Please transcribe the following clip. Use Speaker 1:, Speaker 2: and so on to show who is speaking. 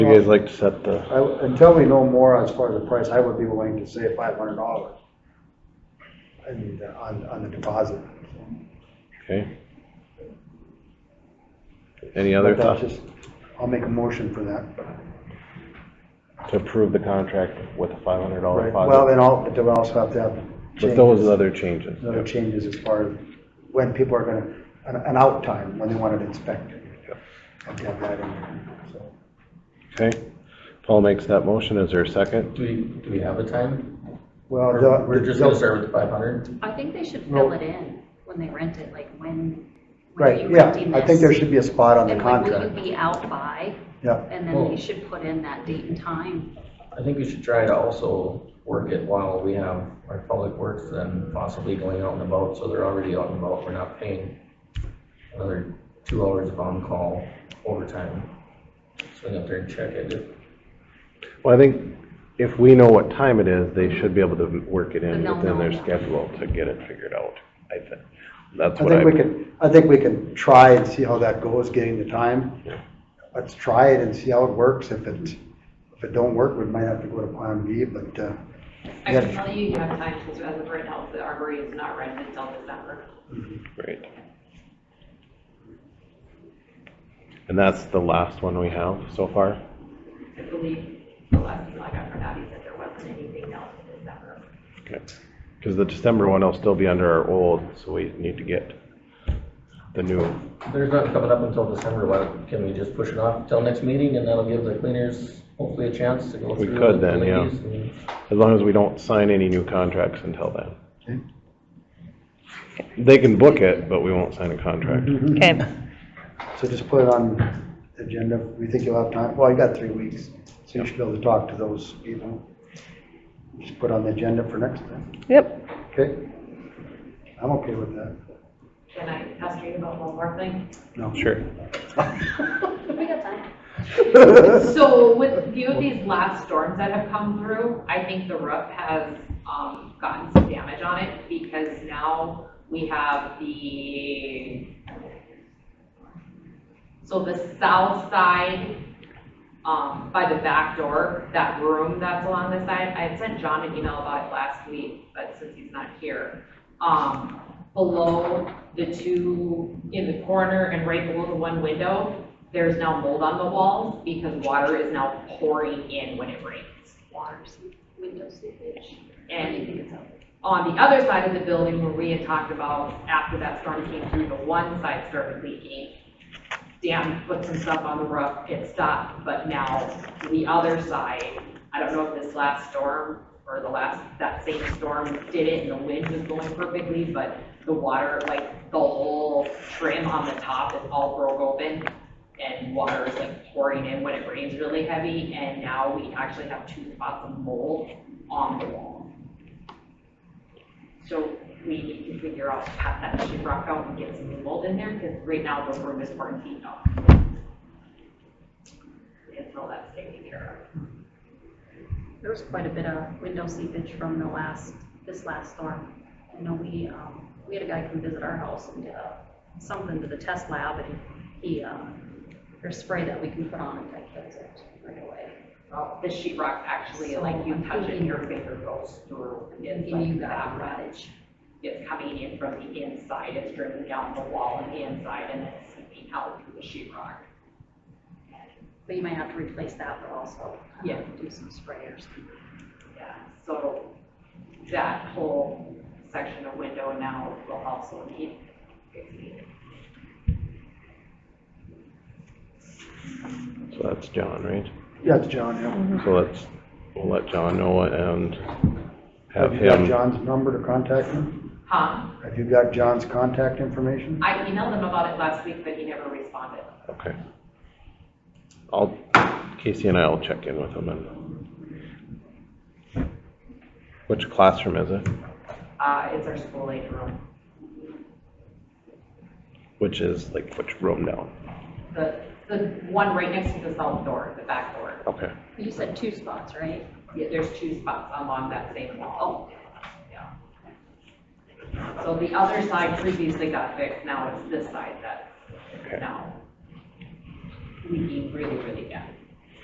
Speaker 1: you guys like to set the,
Speaker 2: I- Until we know more as far as the price, I would be willing to say five hundred dollars. I mean, uh, on, on the deposit.
Speaker 1: okay? Any other
Speaker 2: But that's
Speaker 1: thoughts
Speaker 2: just- I'll make a motion for that.
Speaker 1: to approve the contract with a five hundred dollar
Speaker 2: Right, well,
Speaker 1: deposit?
Speaker 2: then I'll, but then we also have to have
Speaker 1: But those
Speaker 2: changes.
Speaker 1: other changes,
Speaker 2: Other changes as far as when people are gonna, an, an out time, when they want it inspected. Have to have that in there, so.
Speaker 1: okay? Paul makes that motion, is there a second?
Speaker 3: Do we, do we have a time?
Speaker 2: Well,
Speaker 3: Or
Speaker 2: they'll-
Speaker 3: We're just gonna start with the five hundred?
Speaker 4: I think they should
Speaker 2: No.
Speaker 4: fill it in when they rent it, like when, when are
Speaker 2: Right,
Speaker 4: you
Speaker 2: yeah,
Speaker 4: renting
Speaker 2: I think
Speaker 4: this?
Speaker 2: there should be a spot on the
Speaker 4: And when will you
Speaker 2: contract.
Speaker 4: be out by?
Speaker 2: Yeah,
Speaker 4: And then
Speaker 3: Well-
Speaker 4: they should put in that date and time.
Speaker 3: I think we should try to also work it while we have our public works and possibly going out and about, so they're already out and about, we're not paying another two hours of on-call overtime. Swing up there and check it.
Speaker 1: Well, I think if we know what time it is, they should be able to work it in
Speaker 4: Then they'll
Speaker 1: within their
Speaker 4: know.
Speaker 1: schedule to get it figured out, I think. That's
Speaker 2: I
Speaker 1: what I,
Speaker 2: think we can, I think we can try and see how that goes, getting the time. Let's try it and see how it works. If it, if it don't work, we might have to go to plan B, but, uh,
Speaker 5: I
Speaker 2: Yeah.
Speaker 5: can tell you, you have time, because as of right now, the arboretum is not rented until December.
Speaker 1: right. And that's the last one we have so far?
Speaker 5: I believe the last people I got from Abby said there wasn't anything else in December.
Speaker 1: Because the December one will still be under our old, so we need to get the new.
Speaker 3: There's not coming up until December, why, can we just push it off till next meeting, and that'll give the cleaners hopefully a chance to go
Speaker 1: We
Speaker 3: through.
Speaker 1: could
Speaker 3: the
Speaker 1: then, yeah.
Speaker 3: ladies and-
Speaker 1: As long as we don't sign any new contracts until then. They can book it, but we won't sign a contract.
Speaker 2: Mm-hmm.
Speaker 6: Okay,
Speaker 2: so just put it on the agenda. We think you'll have time. Well, you got three weeks, so you should be able to talk to those people. Just put on the agenda for next time,
Speaker 6: yep.
Speaker 2: okay? I'm okay with that.
Speaker 5: Can I ask you about one more thing?
Speaker 2: No.
Speaker 1: Sure.
Speaker 4: We got time.
Speaker 5: So with few of these last storms that have come through, I think the roof has, um, gotten some damage on it because now we have the, so the south side, um, by the back door, that room that's along the side, I had sent John an email about it last week, but since he's not here. Um, below the two in the corner and right below the one window, there's now mold on the walls because water is now pouring in when it rains.
Speaker 4: Water seep, window seepage. What do you
Speaker 5: And
Speaker 4: think it's up?
Speaker 5: on the other side of the building where we had talked about after that storm came through, the one side started leaking. Dan put some stuff on the roof, it stopped, but now the other side, I don't know if this last storm or the last, that same storm did it and the wind was blowing perfectly, but the water, like the whole trim on the top is all broke open and water is like pouring in when it rains really heavy and now we actually have two spots of mold on the wall. So we need to figure out how that should rock out and get some new mold in there, because right now the room is quarantined off. Until that's taken care
Speaker 4: There was quite a bit of window seepage from the last, this last storm. I know we, um, we had a guy come visit our house and did a, something to the test lab and he, uh, there's spray that we can put on it that kills it right away.
Speaker 5: of. Uh, The sheet rock actually, like you touch it, your finger goes through.
Speaker 4: And
Speaker 5: It's
Speaker 4: give you
Speaker 5: like
Speaker 4: that
Speaker 5: that
Speaker 4: rottage.
Speaker 5: It's coming in from the inside, it's dripping down the wall and the inside and then seeping out through the sheet rock.
Speaker 4: But you might have to replace that, but also. uh,
Speaker 5: Yeah.
Speaker 4: Do some sprayers.
Speaker 5: Yeah, so that whole section of window now will also need fixing.
Speaker 1: So that's John, right?
Speaker 2: Yeah, it's John, yeah.
Speaker 1: So let's, we'll let John know and have
Speaker 2: Have you got
Speaker 1: him.
Speaker 2: John's number to contact him?
Speaker 5: Huh?
Speaker 2: Have you got John's contact information?
Speaker 5: I emailed him about it last week, but he never responded.
Speaker 1: Okay. I'll, Casey and I will check in with him and. Which classroom is it?
Speaker 5: Uh, it's our school aid room,
Speaker 1: Which is like which room down?
Speaker 5: the, the one right next to the south door, the back door.
Speaker 1: Okay.
Speaker 4: You said two spots, right? Oh.
Speaker 5: Yeah, There's two spots along that same wall. Yeah. So the other side previously got fixed, now it's this side that's
Speaker 1: Okay.
Speaker 5: now leaking really, really bad.